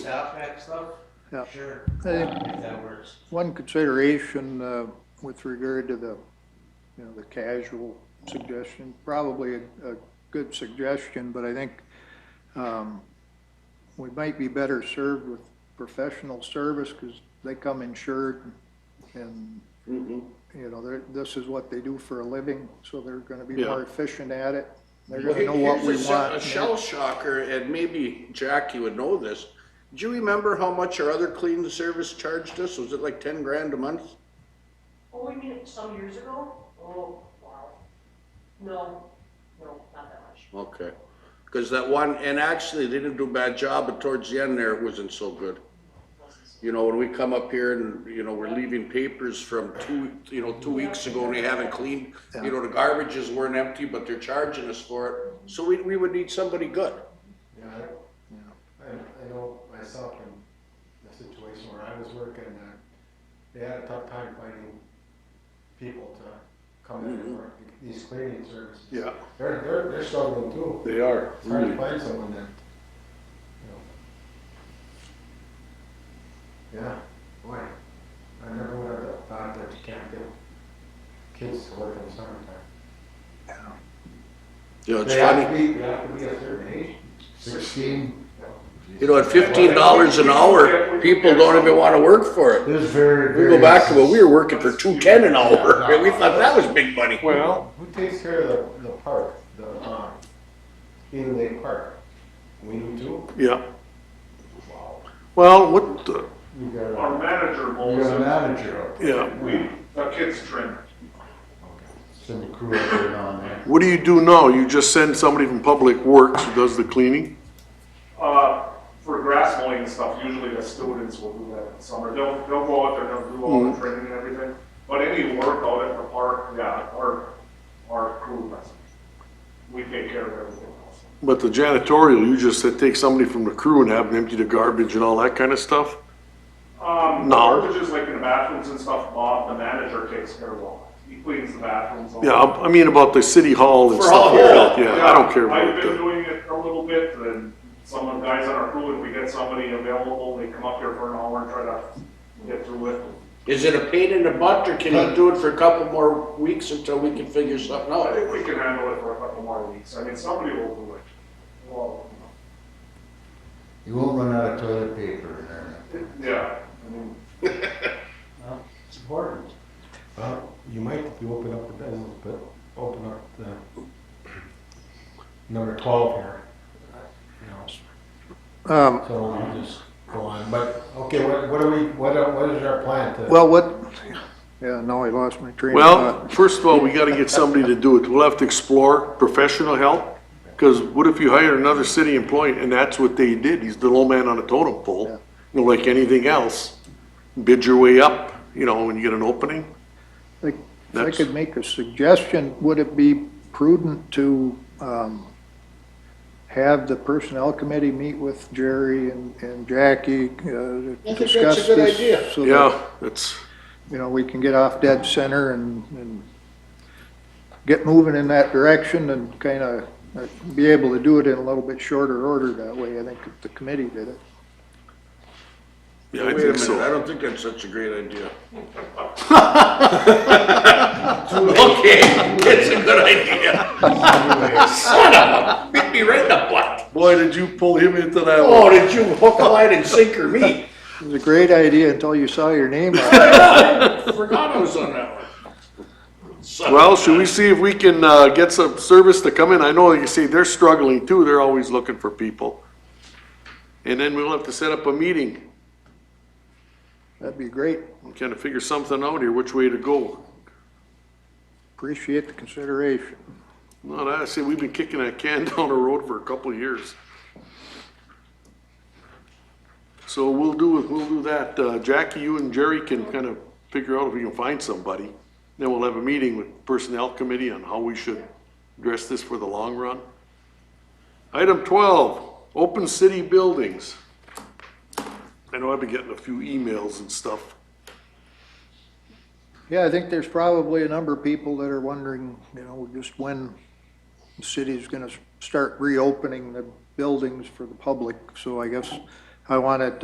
sound track stuff? Yeah. Sure, I if think that works. one consideration uh, with regard to the, you know, the casual suggestion, probably a a good suggestion, but I think um, we might be better served with professional service because they come insured and, you know, they're- this is what they do for a living, so they're going to be Yeah. more efficient at it. They're Well, going to know what here's we a sh- A want. shell shocker, and maybe Jack, you would know this. Do you remember how much our other cleaning service charged us? Was it like ten grand a month? Oh, you mean some years ago? Oh, wow. No, no, not that much. Okay. Cause that one, and actually, they didn't do a bad job, but towards the end there, it wasn't so good. You know, when we come up here and, you know, we're leaving papers from two, you know, two weeks ago and they haven't cleaned, you know, the garbages weren't empty, but they're charging us for it. So we, we would need somebody good. Yeah, I, I, I know myself in the situation where I was working, uh, they had a tough time finding people to come in and work, these cleaning services. Yeah. Mm-hmm. They're, they're, they're struggling too, They are, it's hard to find someone that, you know. Yeah, boy, I never would have thought that you can't get kids to work in the summertime. You know, it's They have funny. to be, they have to be a certain age, sixteen, you know. You know, at fifteen dollars an hour, people don't even wanna work for it. There's very, We very. go back to, well, we were working for two ten an hour, and we thought that was big money. Well. Who takes care of the, the park, the, uh, Eden Lake Park? We do? Yeah, Wow. well, what, the- You got Our manager a, you owns got a it. manager up there, yeah, We, the kids trim send the crew up there and on there. what do you do now? You just send somebody from Public Works who does the cleaning? it. Uh, for grass mowing and stuff, usually the students will do that in the summer. They'll, they'll go out there, they'll do all the training and everything. But any work out at the park, yeah, our, our crew does it. We take care of everything else. But the janitorial, you just said take somebody from the crew and have them empty the garbage and all that kind of stuff? Um, No. Just like in the bathrooms and stuff, Bob, the manager takes care of all that. He cleans the bathrooms. all Yeah, that. I I mean about the city hall and For stuff all like of that, it. yeah, I don't care I've about been that. doing it a little bit, and some of the guys on our crew, if we get somebody available, they come up here for an hour and try to get through it. Is it a pain in the butt, or can you do it for a couple more weeks until we can figure something I think out? we can handle it for a couple more weeks, I mean, somebody will do it. Well, You won't run out of toilet paper in there. yeah, I mean, It's important. Well, you might, if you open up the business, but open up the number twelve here. You know, Um, So we just go on, but, okay, what, what are we, what, are- what is our plan to? Well, what, yeah, no, I lost my train of Well, thought. first of all, we gotta get somebody to do it. We'll have to explore professional help. Cause what if you hire another city employee and that's what they did? He's the low man on a totem pole, you know, like anything else. Bid your way up, you know, when you get an opening. Like, If I That's- could make a suggestion, would it be prudent to um, have the personnel committee meet with Jerry and and Jackie uh, to I think that's a discuss good this? idea. So that, Yeah, that's, you know, we can get off dead center and, and get moving in that direction and kind of be able to do it in a little bit shorter order that way. I think if the committee did it. yeah, I Wait a minute, think I so. don't think that's such a great idea. Okay, it's a good idea. Son of a, hit me right in the butt. Boy, did you pull him into that Oh, did you hook, line, and sinker me? It was a great idea until you saw your name on it. Forgot I was on that one. Son of a- Well, should we see if we can, uh, get some service to come in? I know, you see, they're struggling too, they're always looking for people. And then we'll have to set up a meeting, That'd be great. and kinda figure something out here, which way to go. Appreciate the consideration. Not, I see, we've been kicking that can down the road for a couple of years. So we'll do, we'll do that. Uh, Jackie, you and Jerry can kind of figure out if we can find somebody. Then we'll have a meeting with Personnel Committee on how we should address this for the long run. Item twelve, open city buildings. I know I've been getting a few emails and stuff. Yeah, I think there's probably a number of people that are wondering, you know, just when the city's gonna start reopening the buildings for the public. So I guess I want it